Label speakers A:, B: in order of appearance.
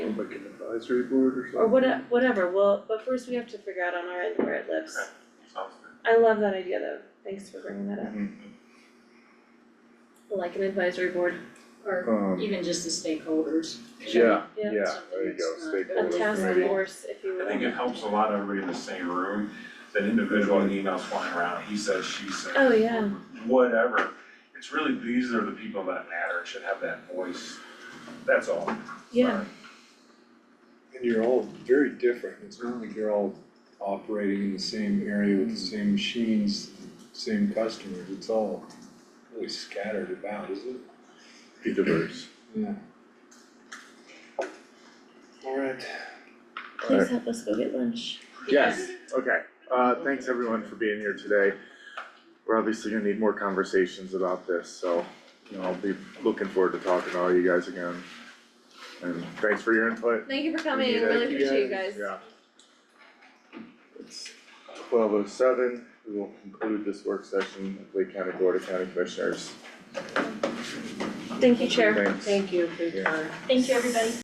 A: advisory board or something.
B: or what, whatever, well, but first we have to figure out on our end where it lives.
C: Okay. Sounds good.
B: I love that idea though, thanks for bringing that up,
C: Mhm.
B: like an advisory board,
D: or
A: Um,
D: even just the stakeholders.
A: yeah,
B: Yeah.
A: yeah, there you go,
D: Something
B: a
D: that's not-
A: stakeholder
B: task
A: committee.
B: force, if you will.
C: I think it helps a lot everybody in the same room, that individual emails flying around, he says, she says.
B: Oh, yeah.
C: Whatever, it's really, these are the people that matter, and should have that voice, that's all.
B: Yeah,
E: And you're all very different, it's not like you're all operating in the same area with the same machines, same customers, it's all really scattered about, isn't it?
A: Be diverse.
E: Yeah. Alright.
B: please help us go get lunch.
A: Yes, okay, uh, thanks everyone for being here today. We're obviously gonna need more conversations about this, so, you know, I'll be looking forward to talking to all you guys again. And thanks for your input.
B: Thank you for
A: We need it.
E: really appreciate you guys.
A: Yeah. It's twelve oh seven, we will conclude this work session of Lake County Board of County Commissioners.
B: Thank you, Chair.
A: Thanks.
F: Thank you for your
A: Yeah.
F: time.
G: Thank you, everybody.